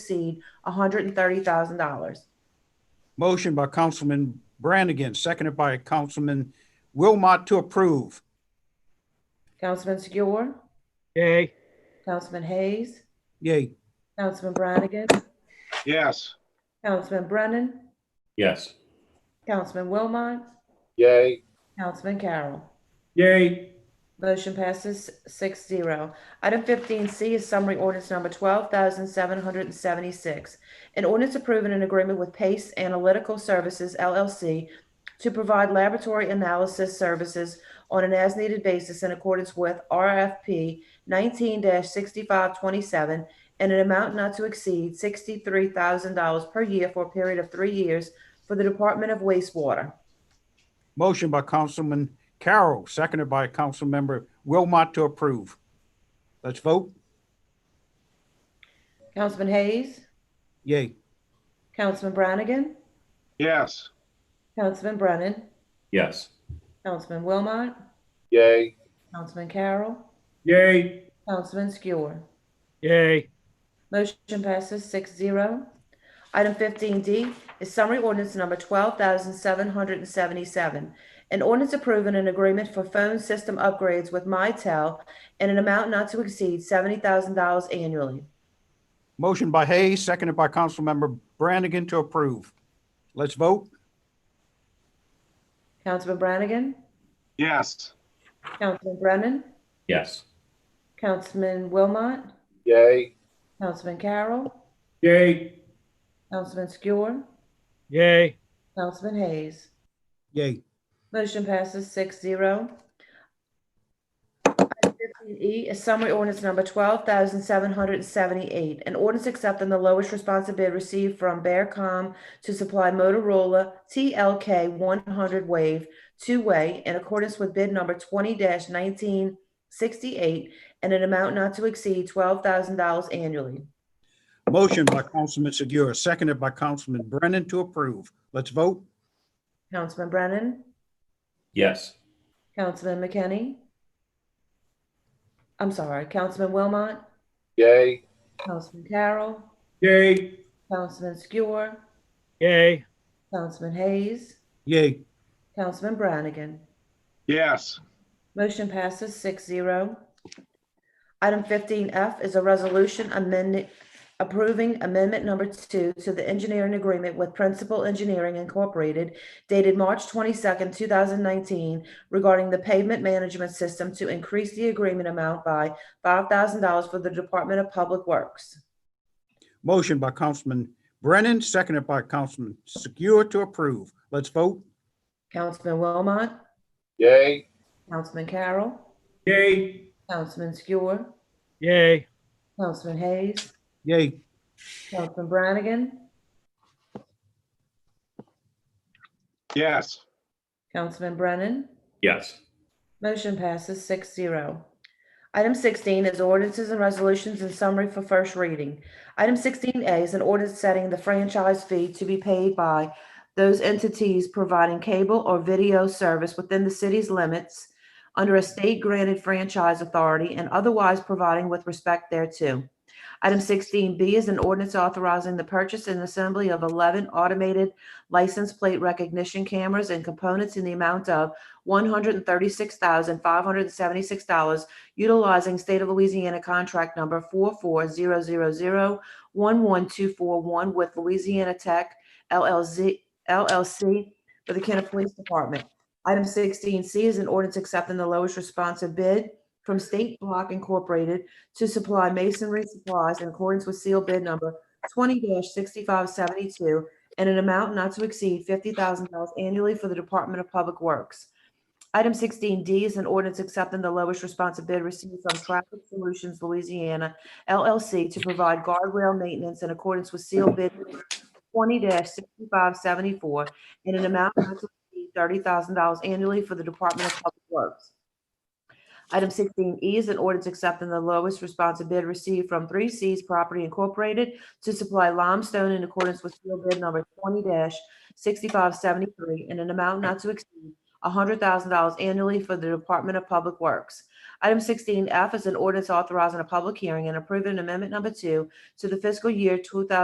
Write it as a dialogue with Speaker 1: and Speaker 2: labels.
Speaker 1: exceed $130,000.
Speaker 2: Motion by Councilman Brannigan, seconded by Councilman Wilmot to approve.
Speaker 1: Councilman Segura,
Speaker 3: Yay.
Speaker 1: Councilman Hayes,
Speaker 2: Yay.
Speaker 1: Councilman Brannigan,
Speaker 4: Yes.
Speaker 1: Councilman Brennan,
Speaker 5: Yes.
Speaker 1: Councilman Wilmot,
Speaker 4: Yay.
Speaker 1: Councilman Carroll.
Speaker 5: Yay.
Speaker 1: Motion passes six zero. Item fifteen C is summary ordinance number twelve thousand seven hundred and seventy-six. An ordinance approving an agreement with Pace Analytical Services LLC to provide laboratory analysis services on an as-needed basis in accordance with RFP nineteen sixty-five twenty-seven and an amount not to exceed sixty-three thousand dollars per year for a period of three years for the Department of Wastewater.
Speaker 2: Motion by Councilman Carroll, seconded by Councilmember Wilmot to approve. Let's vote.
Speaker 1: Councilman Hayes,
Speaker 2: Yay.
Speaker 1: Councilman Brannigan,
Speaker 4: Yes.
Speaker 1: Councilman Brennan,
Speaker 5: Yes.
Speaker 1: Councilman Wilmot,
Speaker 4: Yay.
Speaker 1: Councilman Carroll,
Speaker 5: Yay.
Speaker 1: Councilman Skewer.
Speaker 3: Yay.
Speaker 1: Motion passes six zero. Item fifteen D is summary ordinance number twelve thousand seven hundred and seventy-seven. An ordinance approving an agreement for phone system upgrades with Mitel in an amount not to exceed seventy thousand dollars annually.
Speaker 2: Motion by Hayes, seconded by Councilmember Brannigan to approve. Let's vote.
Speaker 1: Councilman Brannigan,
Speaker 4: Yes.
Speaker 1: Councilman Brennan,
Speaker 5: Yes.
Speaker 1: Councilman Wilmot,
Speaker 4: Yay.
Speaker 1: Councilman Carroll,
Speaker 5: Yay.
Speaker 1: Councilman Skewer,
Speaker 3: Yay.
Speaker 1: Councilman Hayes.
Speaker 2: Yay.
Speaker 1: Motion passes six zero. Fifteen E is summary ordinance number twelve thousand seven hundred and seventy-eight. An ordinance accepting the lowest responsive bid received from Bearcom to supply Motorola TLK one hundred wave two-way in accordance with bid number twenty nineteen sixty-eight and an amount not to exceed twelve thousand dollars annually.
Speaker 2: Motion by Councilman Segura, seconded by Councilman Brennan to approve. Let's vote.
Speaker 1: Councilman Brennan,
Speaker 5: Yes.
Speaker 1: Councilman McKinney. I'm sorry, Councilman Wilmot,
Speaker 4: Yay.
Speaker 1: Councilman Carroll,
Speaker 5: Yay.
Speaker 1: Councilman Skewer,
Speaker 3: Yay.
Speaker 1: Councilman Hayes,
Speaker 2: Yay.
Speaker 1: Councilman Brannigan.
Speaker 4: Yes.
Speaker 1: Motion passes six zero. Item fifteen F is a resolution amending, approving amendment number two to the engineering agreement with Principal Engineering Incorporated dated March twenty-second, two thousand nineteen regarding the pavement management system to increase the agreement amount by five thousand dollars for the Department of Public Works.
Speaker 2: Motion by Councilman Brennan, seconded by Councilman Segura to approve. Let's vote.
Speaker 1: Councilman Wilmot,
Speaker 4: Yay.
Speaker 1: Councilman Carroll,
Speaker 5: Yay.
Speaker 1: Councilman Skewer,
Speaker 3: Yay.
Speaker 1: Councilman Hayes,
Speaker 2: Yay.
Speaker 1: Councilman Brannigan,
Speaker 4: Yes.
Speaker 1: Councilman Brennan,
Speaker 5: Yes.
Speaker 1: motion passes six zero. Item sixteen is ordinances and resolutions in summary for first reading. Item sixteen A is an ordinance setting the franchise fee to be paid by those entities providing cable or video service within the city's limits under a state-granted franchise authority and otherwise providing with respect thereto. Item sixteen B is an ordinance authorizing the purchase and assembly of eleven automated license plate recognition cameras and components in the amount of one hundred and thirty-six thousand, five hundred and seventy-six dollars utilizing State of Louisiana contract number four four zero zero zero one one two four one with Louisiana Tech LLZ, LLC for the Kenner Police Department. Item sixteen C is an ordinance accepting the lowest responsive bid from State Block Incorporated to supply masonry supplies in accordance with seal bid number twenty sixty-five seventy-two and an amount not to exceed fifty thousand dollars annually for the Department of Public Works. Item sixteen D is an ordinance accepting the lowest responsive bid received from Traffic Solutions Louisiana LLC to provide guardrail maintenance in accordance with seal bid twenty sixty-five seventy-four and an amount not to exceed thirty thousand dollars annually for the Department of Public Works. Item sixteen E is an ordinance accepting the lowest responsive bid received from Three Cs Property Incorporated to supply limestone in accordance with field bid number twenty sixty-five seventy-three in an amount not to exceed hundred thousand dollars annually for the Department of Public Works. Item sixteen F is an ordinance authorizing a public hearing and approving amendment number two to the fiscal year two thousand